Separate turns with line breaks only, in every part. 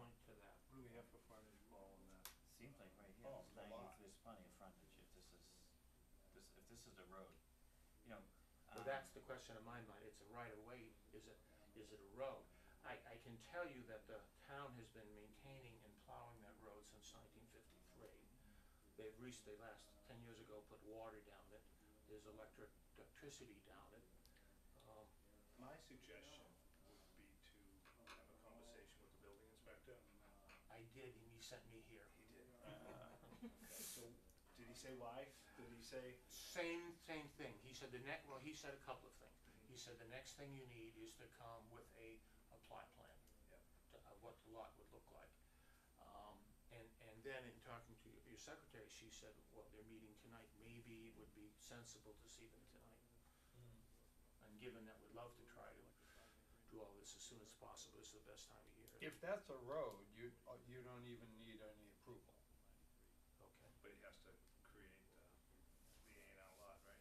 Uh-huh.
Oh,
this, if this is a road, you know.
Well,
um,
that's the question in my mind, it's a right of way, is it, is it a road? I, I can tell you that the town has been maintaining and plowing that road since nineteen fifty-three. They've reached, they last, ten years ago, put water down it, there's electric, electricity down it. Um,
My suggestion would be to have a conversation with the building inspector.
I did, and he sent me here.
He did. So, did he say why? Did he say?
Same, same thing. He said the next, well, he said a couple of things.
Mm-hmm.
He said the next thing you need is to come with a, a plot plan.
Yep.
to- Of what the lot would look like. Um, and, and then in talking to your- your secretary, she said, well, they're meeting tonight, maybe it would be sensible to see them tonight.
Mm-hmm.
And given that we'd love to try to do all this as soon as possible, it's the best time of year.
If that's a road, you, uh, you don't even need any approval.
Okay.
But he has to create the, the A and R lot, right?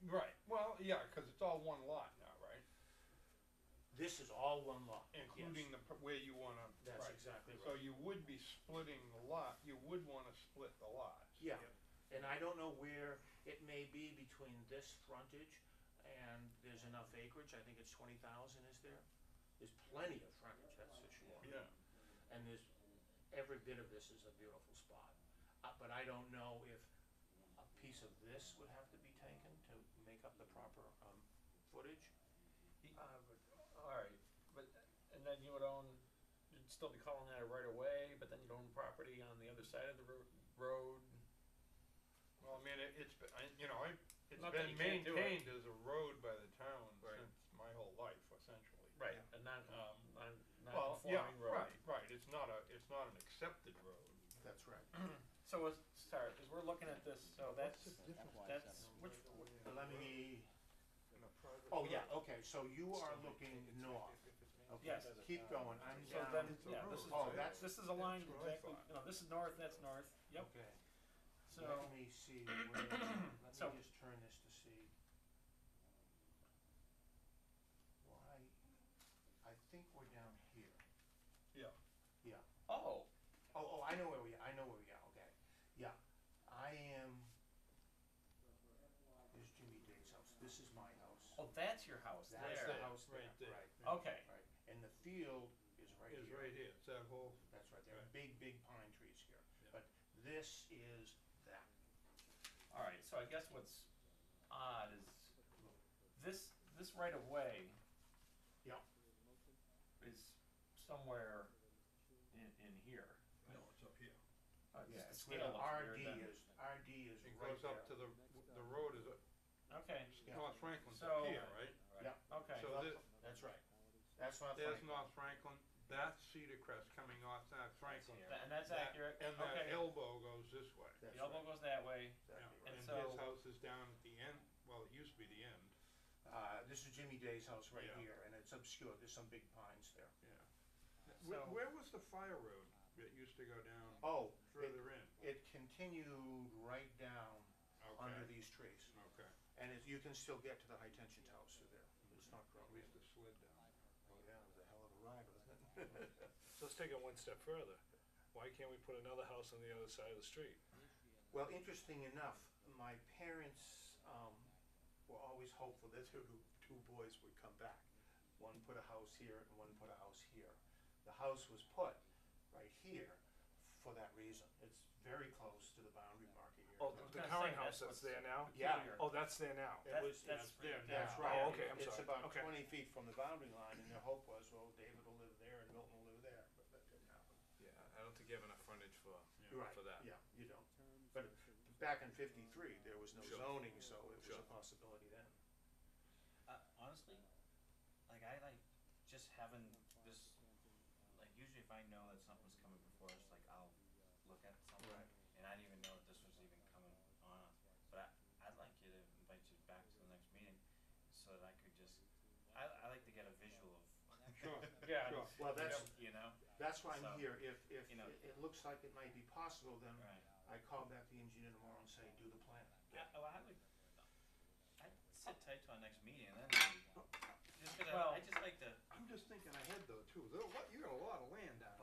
Right, well, yeah, cause it's all one lot now, right?
This is all one lot. yes.
Including the, p- where you wanna.
That's
right.
exactly
So
right.
you would be splitting the lot, you would wanna split the lots.
Yeah.
Yep.
And I don't know where it may be between this frontage and there's enough acreage, I think it's twenty thousand, is there? There's plenty of frontage, that's for sure.
Yeah.
And there's, every bit of this is a beautiful spot. Uh, but I don't know if a piece of this would have to be taken to make up the proper, um, footage.
Uh, but, all right, but and then you would own, you'd still be calling that a right of way, but then you'd own property on the other side of the ro- road.
Well, I mean, it, it's, been- I, you know, I, it's
Not that
been
you can't do it.
maintained as a road by the town
Right.
since my whole life essentially.
Right. A non, um, non,
Well,
non-conforming
yeah,
road.
right, right, it's not a, it's not an accepted road.
That's right.
So, it's- sorry, because we're looking at this, so that's, that's, which,
Let me,
In a private
oh
road.
yeah, okay, so you are looking north. Okay,
Yes.
Keep going, I'm
so
down.
then,
It's a
yeah,
road.
this is,
Oh, that's-
this is aligned
that's what I
exactly,
thought.
no, this is north, that's north, yep,
Okay.
so,
Let me see, where, let
So-
me just turn this to see. Why, I think we're down here,
Yeah,
yeah.
oh,
Oh, oh, I know where we, I know where we are, okay, yeah. I am, there's Jimmy Diggs' house, this is my house.
oh, that's your house there.
That's the house there,
right there.
right,
Okay,
right. And the field is right here.
it's right here, it's that whole,
That's right, there are
Right.
big, big pine trees here.
Yeah.
But this is that,
all right, so I guess what's odd is this, this right of way
yeah,
is somewhere in, in here.
no, it's up here.
Uh,
yeah,
just the
it's where
scale
the
looks weird
RD
then.
is, RD is
It
right
goes
there.
up to the, the road is, up-
Okay,
Yeah.
North Franklin's
So-
up here, right?
Yeah,
okay,
So this,
that's right. That's not
there's
Franklin.
North Franklin, that's Cedar Crest coming off that Franklin.
Tha- and that's
That-
accurate,
And that
okay.
elbow goes this way.
That's
The elbow
right.
goes that way,
That'd be
Yeah,
right.
And his
so-
house is down at the end, well, it used to be the end,
Uh, this is Jimmy Day's house right
Yeah.
here, and it's obscure, there's some big pines there.
yeah.
So-
Where, where was the fire road that used to go down
Oh, it,
further in?
it continued right down under
Okay,
these trees.
okay,
And it, you can still get to the high tension towers through there, it's not grown.
at least it slid down.
Oh, yeah, it was a hell of a ride, wasn't it?
Let's take it one step further. Why can't we put another house on the other side of the street?
Well, interesting enough, my parents um, were always hopeful that their two- two boys would come back. One put a house here and one put a house here. The house was put right here for that reason. It's very close to the boundary marker here.
Oh,
I was
the
gonna
current
say,
house that's
that's
there now?
Yeah.
Oh, that's there now.
It was,
that's-
it's,
Yeah,
that's
yeah.
right.
Oh, okay, I'm
It's
sorry.
about
Okay.
twenty feet from the boundary line and their hope was, well, David will live there and Milton will live there, but that didn't happen.
Yeah, I don't think you have enough frontage for,
Right,
for that.
yeah, you don't. But back in fifty-three, there was no
Sure.
zoning, so it was a
Sure.
possibility then.
Uh, honestly, like I like just having this. Like usually, if I know that something's coming before us, like I'll look at something,
Right.
and I didn't even know that this was even coming on. us. But I, I'd like you to invite you back to the next meeting, so that I could just. I, I like to get a visual of.
Sure,
yeah,
sure.
Well, that's,
You know.
that's why I'm
So,
here, if, if
you know.
it, it looks like it might be possible, then I
Right.
call back the engineer tomorrow and say, do the plan.
I, oh, I would. I'd sit tight to our next meeting, and then maybe, just 'cause I-
Well-
I just like to.
I'm just thinking ahead though too, There- what- you got a lot of land down
Oh,